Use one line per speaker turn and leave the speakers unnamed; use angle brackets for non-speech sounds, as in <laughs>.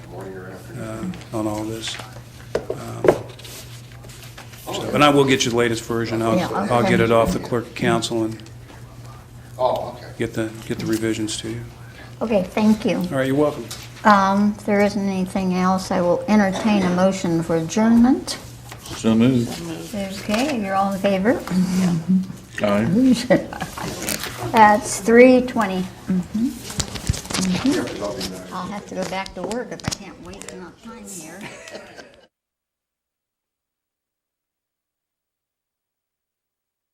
morning or afternoon.
um, on all this. Um, so- And I will get you the latest version. I'll,
Yeah,
I'll get
okay.
it off the clerk of council and
Oh, okay.
get the, get the revisions to you.
Okay, thank you.
All right, you're welcome.
Um, If there isn't anything else, I will entertain a motion for adjournment.
So moved.
Okay, you're all in favor? <laughs>
Aye.
That's 3:20.
You have to help me now.
I'll have to go back to work if I can't wait enough time here.